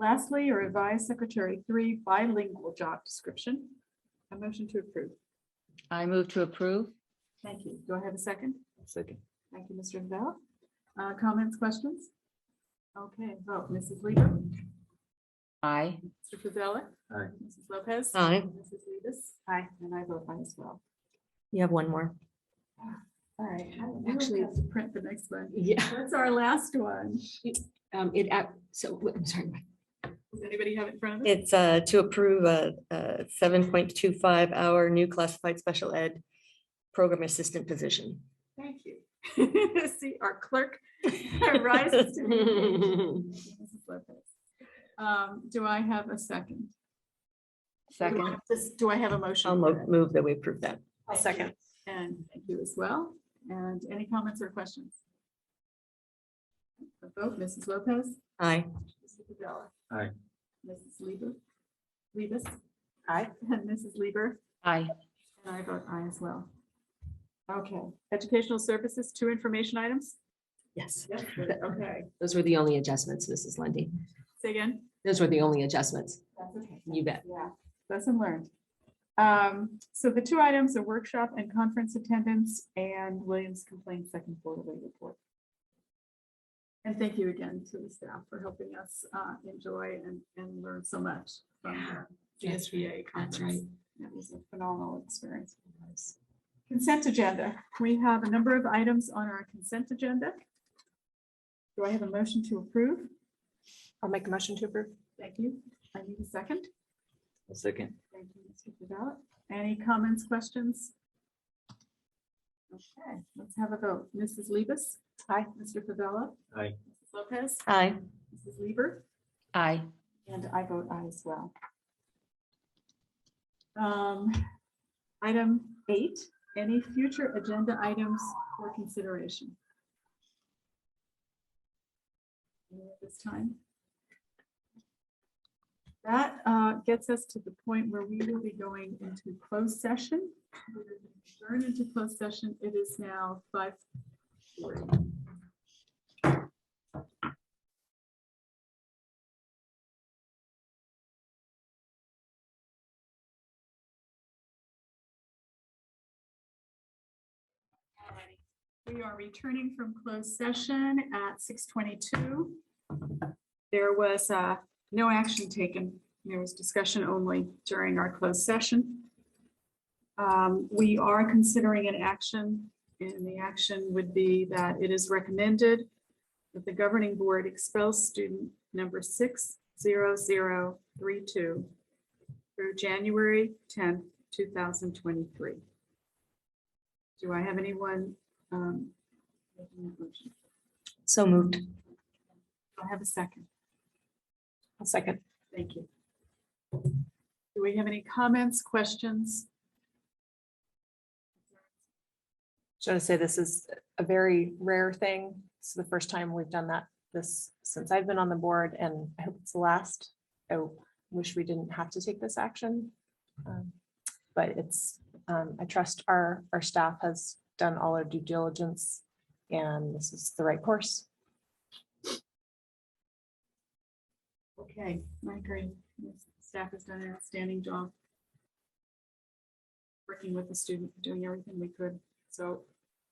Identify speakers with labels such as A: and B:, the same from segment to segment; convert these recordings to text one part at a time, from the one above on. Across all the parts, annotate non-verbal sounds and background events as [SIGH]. A: Lastly, a revised Secretary Three bilingual job description. A motion to approve.
B: I move to approve.
A: Thank you. Do I have a second?
C: Second.
A: Thank you, Mr. Bell. Uh, Comments, questions? Okay, vote. Mrs. Lieber.
B: Aye.
A: Mr. Favela.
C: Aye.
A: Mrs. Lopez.
D: Aye.
A: Mrs. Libis. Aye. And I vote aye as well.
D: You have one more.
A: All right, I actually have to print the next one.
E: Yeah,
A: That's our last one.
E: um, it, app- so, w- I'm sorry, Mike.
A: Does anybody have it in front of them?
D: It's uh, to approve a seven point two five hour new classified special ed program assistant position.
A: Thank you. [LAUGHS] See, our clerk rises to the occasion. [LAUGHS] Mrs. Lopez. Um, Do I have a second? Do I-
B: Second.
A: this- Do I have a motion?
D: I'll
A: for
D: mo-
A: that?
D: move that we approve that.
A: I'll second. And thank you as well. And any comments or questions? A vote, Mrs. Lopez.
D: Aye.
A: Mr. Pavella.
C: Aye.
A: Mrs. Lieber. Libis. Aye. [LAUGHS] And Mrs. Lieber.
B: Aye.
A: And I vote aye as well. Okay, educational services, two information items?
D: Yes.
A: Yes. Okay,
E: Those were the only adjustments, Mrs. Lundy.
A: say again?
E: Those were the only adjustments.
A: That's okay.
E: You bet.
A: Yeah, lesson learned. Um, so the two items are workshop and conference attendance and Williams complaint second quarterly report. And thank you again to the staff for helping us uh, enjoy and, and learn so much from the
E: That's
A: GSBA
E: That's
A: conference. It was a phenomenal experience. for us. Consent agenda. We have a number of items on our consent agenda. Do I have a motion to approve?
F: I'll make a motion to approve.
A: Thank you. I need a second.
C: A second.
A: Thank you, Mr. Develop. Any comments, questions? Okay, let's have a vote. Mrs. Libis. Aye. Mr. Favela.
C: Aye.
A: Mrs. Lopez.
D: Aye.
A: Mrs. Lieber.
B: Aye.
A: And I vote aye as well. Um, Item eight, any future agenda items for consideration? Any at This time. That uh, gets us to the point where we will be going into closed session. We will Adjourn into closed session. It is now five forty. We are returning from closed session at six twenty-two. There was uh, no action taken. There was discussion only during our closed session. Um, We are considering an action, and the action would be that it is recommended that the governing board expels student number six zero zero three two through January tenth, two thousand twenty-three. Do I have anyone um, making that motion?
D: So moved.
A: Do I have a second.
F: I'll second.
A: Thank you. Do we have any comments, questions?
F: Should I say this is a very rare thing? It's the first time we've done that this, since I've been on the board and I hope it's the last. I wish we didn't have to take this action. Um, But it's, um, I trust our, our staff has done all our due diligence and this is the right course.
A: Okay, I agree. Yes, Staff has done an outstanding job. Working with the student, doing everything we could. So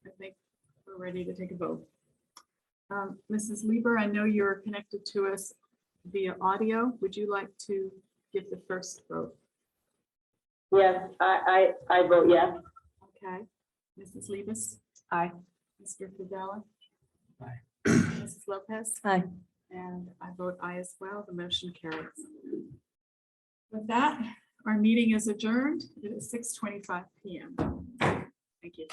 A: I think we're ready to take a vote. Um, Mrs. Lieber, I know you're connected to us via audio. Would you like to give the first vote?
G: Yes, I, I, I vote yes.
A: Okay, Mrs. Libis?
F: Aye.
A: Mr. Favela?
C: Aye.
A: Mrs. Lopez?
D: Aye.
A: And I vote aye as well. The motion carries. With that, our meeting is adjourned. It is six twenty-five PM. Thank you.